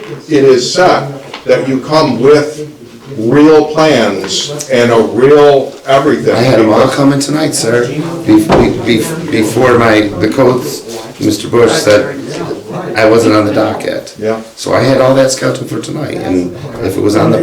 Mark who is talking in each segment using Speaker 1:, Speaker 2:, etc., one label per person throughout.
Speaker 1: it is set that you come with real plans and a real everything.
Speaker 2: I had them all
Speaker 1: because-
Speaker 2: coming tonight, sir, Be- be- be- before my, the codes, Mr. Bush said I wasn't on the docket.
Speaker 1: Yeah.
Speaker 2: So I had all that scheduled for tonight, and if it was on the,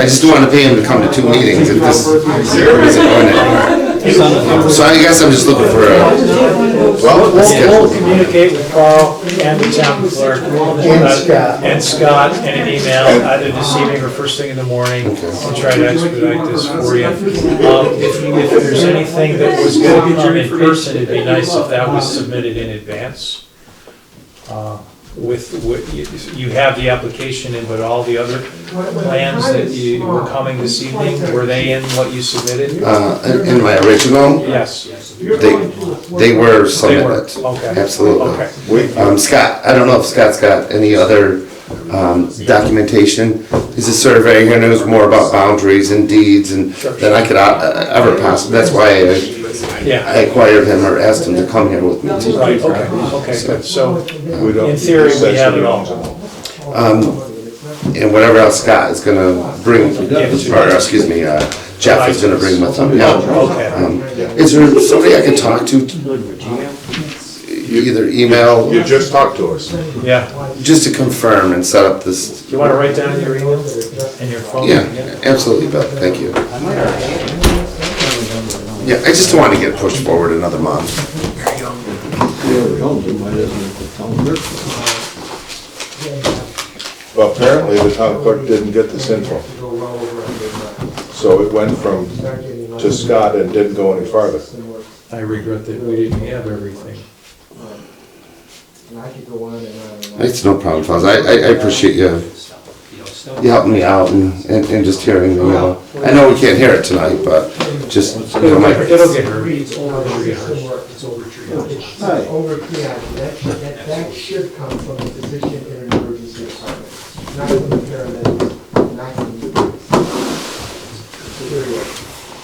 Speaker 2: I just don't wanna pay him to come to two meetings if this isn't going anywhere. So I guess I'm just looking for a,
Speaker 1: Well,
Speaker 3: We'll,
Speaker 1: we'll-
Speaker 3: we'll communicate with Carl and the town clerk. And Scott. And Scott in an email, either this evening or first thing in the morning, to try to expedite this for you. Um, If, you- if there's anything that was going to come in person, it'd be nice if that was submitted in advance. Uh, With, with, you- you have the application in, but all the other plans that you were coming this evening, were they in what you submitted?
Speaker 2: uh, in- in my original,
Speaker 3: Yes,
Speaker 2: they, they were
Speaker 3: they were,
Speaker 2: submitted,
Speaker 3: okay.
Speaker 2: absolutely.
Speaker 3: Okay.
Speaker 1: we,
Speaker 2: Um, Scott, I don't know if Scott's got any other, um, documentation. He's a surveyor, he knows more about boundaries and deeds and, than I could uh, ever possibly, that's why I-
Speaker 3: Yeah,
Speaker 2: I acquired him or asked him to come here with me.
Speaker 3: right, okay, okay, good, so,
Speaker 1: we don't.
Speaker 3: In theory, we have it
Speaker 1: Um,
Speaker 3: all.
Speaker 2: And whatever else Scott is gonna bring, or excuse me, uh, Jeff is gonna bring with him, yeah.
Speaker 3: okay.
Speaker 2: Um, Is there somebody I can talk to? Either email,
Speaker 1: You just talked to us.
Speaker 3: Yeah,
Speaker 2: just to confirm and set up this,
Speaker 3: you want to write down your email and your phone?
Speaker 2: yeah, absolutely, Bill, thank you. Yeah, I just don't want to get pushed forward another month.
Speaker 1: Well, Apparently, the town clerk didn't get this info. So it went from, to Scott and didn't go any farther.
Speaker 3: I regret that we didn't have everything.
Speaker 2: It's no problem, Fuzz, I, I I appreciate you, you helping me out and, and and just hearing the mail. I know we can't hear it tonight, but just, you know,
Speaker 3: It'll
Speaker 2: my-
Speaker 3: get it'll get her. It'll get her.
Speaker 4: Over triage, that, that, that should come from the physician in an emergency department, not from the paramedics, not from the police. Period.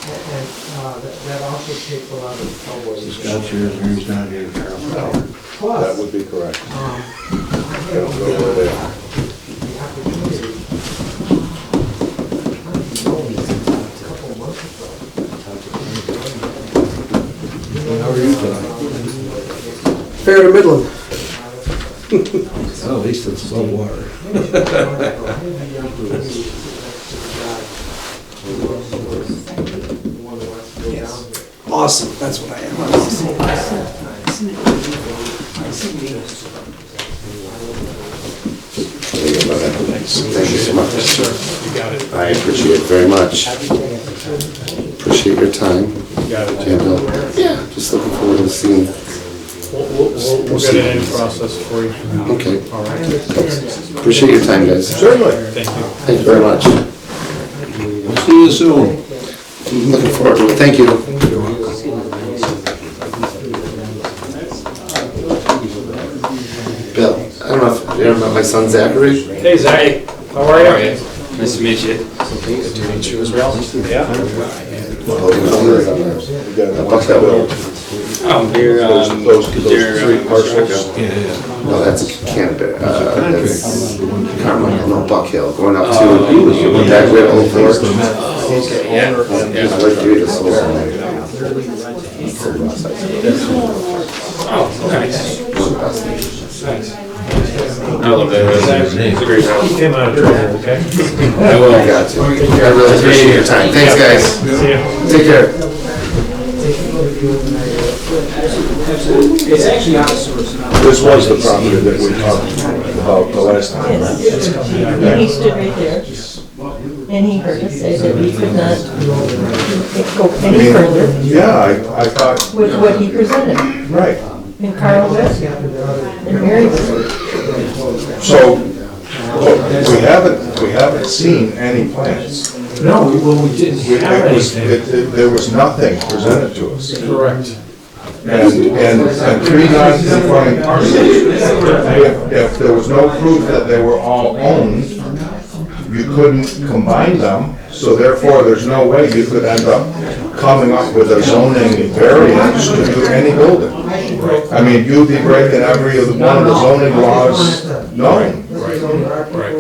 Speaker 4: And, and, uh, that, that also takes a lot of
Speaker 5: Scott's
Speaker 4: cowboys.
Speaker 5: here, he's not here, Carol.
Speaker 1: That
Speaker 4: Plus, um,
Speaker 1: would be correct.
Speaker 4: I
Speaker 1: I don't
Speaker 4: have
Speaker 1: know where they are.
Speaker 4: the opportunity. I told you a couple months ago,
Speaker 5: How are you tonight?
Speaker 6: Fair to middling.
Speaker 5: Well, at least it's above water.
Speaker 4: Yes.
Speaker 6: Awesome, that's what I am. I'm awesome.
Speaker 2: Thank you so much. I appreciate it very much. Appreciate your time. And, uh, Yeah, just looking forward to seeing,
Speaker 3: We'll, we'll, we'll- we'll get it in process for you.
Speaker 2: okay.
Speaker 3: All right,
Speaker 2: Appreciate your time, guys.
Speaker 1: Certainly.
Speaker 3: thank you.
Speaker 2: Thank you very much.
Speaker 5: See you soon.
Speaker 2: Looking forward to it. Thank you. Bill, I don't know if you ever met my son Zachary?
Speaker 3: Hey, Zach, how are you?
Speaker 7: Nice to meet you.
Speaker 2: Buck
Speaker 1: We got one
Speaker 2: that
Speaker 1: bill.
Speaker 2: will.
Speaker 7: Oh, you're,
Speaker 1: Those,
Speaker 7: um,
Speaker 1: those, those
Speaker 7: they're,
Speaker 1: three
Speaker 7: uh,
Speaker 1: parcels.
Speaker 5: Yeah, yeah.
Speaker 2: No, that's Canada, uh, that's Carmel, no, Buck Hill, going up to,
Speaker 7: Oh,
Speaker 2: that way over
Speaker 5: It's the
Speaker 2: there.
Speaker 5: Met.
Speaker 7: yeah,
Speaker 2: He's
Speaker 7: yeah.
Speaker 2: like, dude, this is-
Speaker 7: Oh, nice. I love that. It's a great
Speaker 3: You
Speaker 7: town.
Speaker 3: came out of trouble, okay?
Speaker 7: I
Speaker 2: I
Speaker 7: will.
Speaker 2: got you. I really appreciate your time. Thanks, guys.
Speaker 3: See ya.
Speaker 2: Take care.
Speaker 1: This was the property that we talked about the last time. right?
Speaker 8: And he stood right there, and he heard us say that we could not go any further
Speaker 1: Yeah, I, I thought,
Speaker 8: with what he presented.
Speaker 1: right.
Speaker 8: And Carl was, and Mary was,
Speaker 1: So, we haven't, we haven't seen any plans.
Speaker 3: No, we- well, we didn't have
Speaker 1: It was,
Speaker 3: anything.
Speaker 1: it, it- there was nothing presented to us.
Speaker 3: Correct.
Speaker 1: And, and, and three non-conforming parcels, if, if there was no proof that they were all owned, you couldn't combine them, so therefore, there's no way you could end up coming up with a zoning variance to do any building. I mean, you'd be breaking every one of the zoning laws known.
Speaker 4: Right, right.